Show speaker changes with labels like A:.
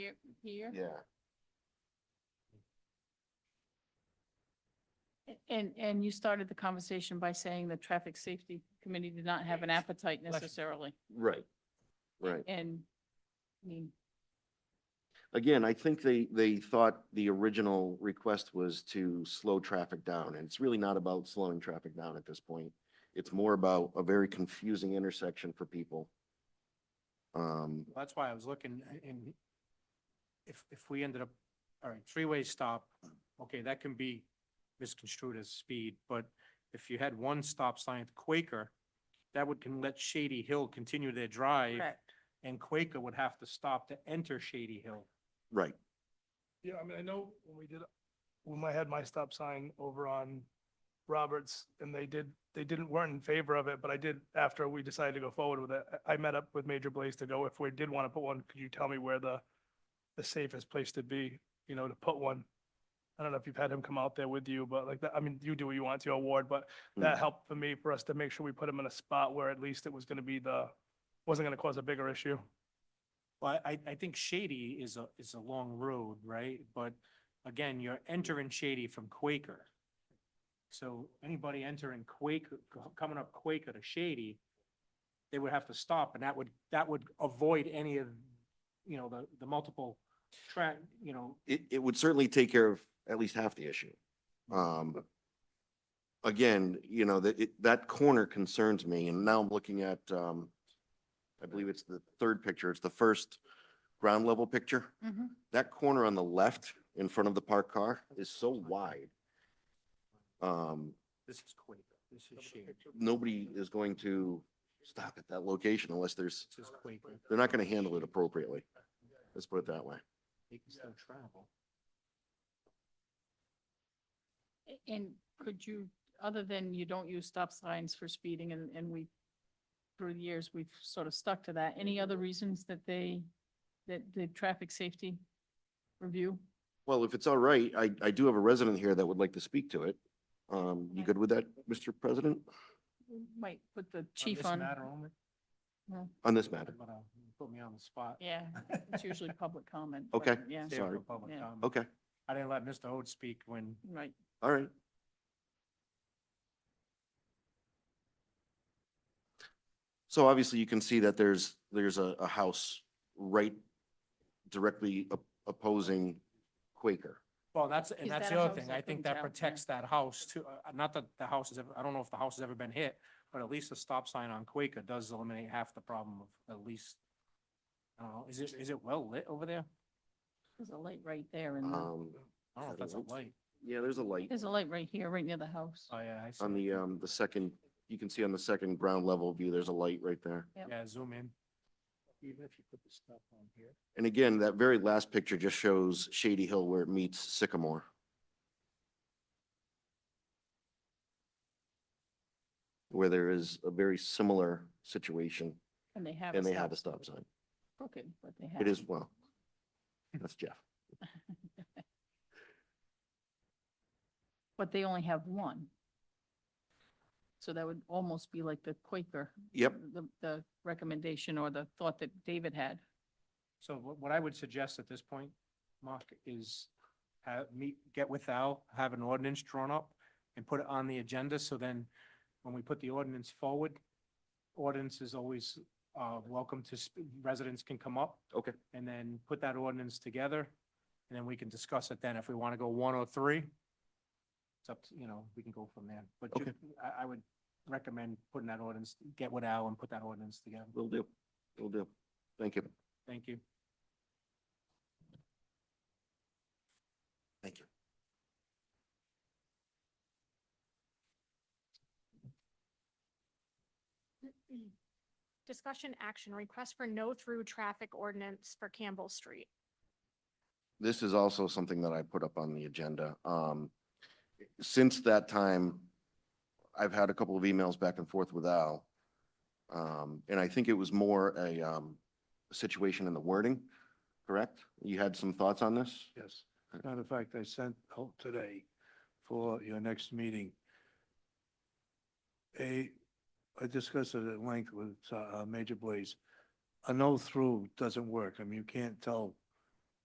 A: right here.
B: Yeah,
A: And, and you started the conversation by saying the traffic safety committee did not have an appetite necessarily.
B: right, right.
A: And, I mean,
B: Again, I think they, they thought the original request was to slow traffic down, and it's really not about slowing traffic down at this point. It's more about a very confusing intersection for people. Um,
C: That's why I was looking a- and if, if we ended up, all right, three-way stop, okay, that can be misconstrued as speed, but if you had one stop sign at Quaker, that would can let Shady Hill continue their drive
A: correct.
C: and Quaker would have to stop to enter Shady Hill.
B: right,
D: Yeah, I mean, I know when we did, when I had my stop sign over on Roberts and they did, they didn't, weren't in favor of it, but I did, after we decided to go forward with it, I I met up with Major Blaze to go, if we did want to put one, could you tell me where the, the safest place to be, you know, to put one? I don't know if you've had him come out there with you, but like, that I mean, you do what you want to your ward, but that
B: Mm.
D: helped for me, for us to make sure we put him in a spot where at least it was going to be the, wasn't going to cause a bigger issue.
C: Well, I, I think Shady is a, is a long road, right? But again, you're entering Shady from Quaker. So anybody entering Quaker, co- coming up Quaker to Shady, they would have to stop and that would, that would avoid any of, you know, the, the multiple track, you know,
B: it, it would certainly take care of at least half the issue. Um, again, you know, that, it, that corner concerns me, and now I'm looking at, um, I believe it's the third picture, it's the first ground level picture.
A: Mhm.
B: that corner on the left in front of the parked car is so wide. Um,
C: this is Quaker, this is Shady,
B: nobody is going to stop at that location unless there's,
C: this is Quaker.
B: they're not gonna handle it appropriately. Let's put it that way.
C: They can still travel.
A: A- And could you, other than you don't use stop signs for speeding and, and we, through the years, we've sort of stuck to that. Any other reasons that they, that the traffic safety review?
B: Well, if it's all right, I, I do have a resident here that would like to speak to it. Um, you good with that, Mr. President,
A: Might put the
C: On
A: chief
C: this
A: on,
C: matter only,
B: on this matter?
C: but, uh, you Put me on the spot.
A: yeah, it's usually public comment. but
B: Okay.
A: Yeah,
C: Save it for
B: Sorry.
C: public
A: Yeah.
C: comment.
B: Okay,
C: I didn't let Mr. Oates speak when
A: right.
B: all right. So obviously you can see that there's, there's a, a house right directly op- opposing Quaker.
C: Well, that's,
A: Is
C: and that's
A: that
C: the
A: a
C: other
A: house?
C: thing.
A: I
C: I think
A: couldn't
C: that
A: tell, yeah.
C: protects that house too. Uh, Not that the house has ever, I don't know if the house has ever been hit, but at least the stop sign on Quaker does eliminate half the problem of at least, I don't know, is it, is it well lit over there?
A: There's a light right there and
B: Um,
C: I don't know if
B: Is
C: that's
B: that
C: a
B: a light?
C: light.
B: yeah, there's a light
A: Mm-hmm. there's a light right here, right near the house.
B: Uh,
C: Oh, yeah, I see.
B: on the, um, the second, you can see on the second ground level view, there's a light right there.
C: Yeah, zoom in. Even if you put the stuff on here.
B: And again, that very last picture just shows Shady Hill where it meets Sycamore. Where there is a very similar situation
A: And they have.
B: and they have a
A: sign.
B: stop sign.
A: Crooked, but they have.
B: It is, well, that's Jeff.
A: But they only have one. So that would almost be like the Quaker.
B: Yep,
A: The, the recommendation or the thought that David had.
C: So what, what I would suggest at this point, Mark, is have, meet, get with Al, have an ordinance drawn up and put it on the agenda, so then when we put the ordinance forward, ordinance is always, uh, welcome to, sp- residents can come up.
B: Okay.
C: And then put that ordinance together, and then we can discuss it then, if we want to go one or three. It's up to, you know, we can go from there, but ju-
B: Okay.
C: I, I would recommend putting that ordinance, get with Al and put that ordinance together.
B: will do, will do. Thank you.
C: Thank you.
B: Thank you.
E: Discussion action, request for no-through traffic ordinance for Campbell Street.
B: this is also something that I put up on the agenda. Um, since that time, I've had a couple of emails back and forth with Al. Um, and I think it was more a, um, situation in the wording, correct? You had some thoughts on this?
F: Yes. Matter of fact, I sent out today for your next meeting. A, I discussed it at length with uh, uh, Major Blaze. A no-through doesn't work. I mean, you can't tell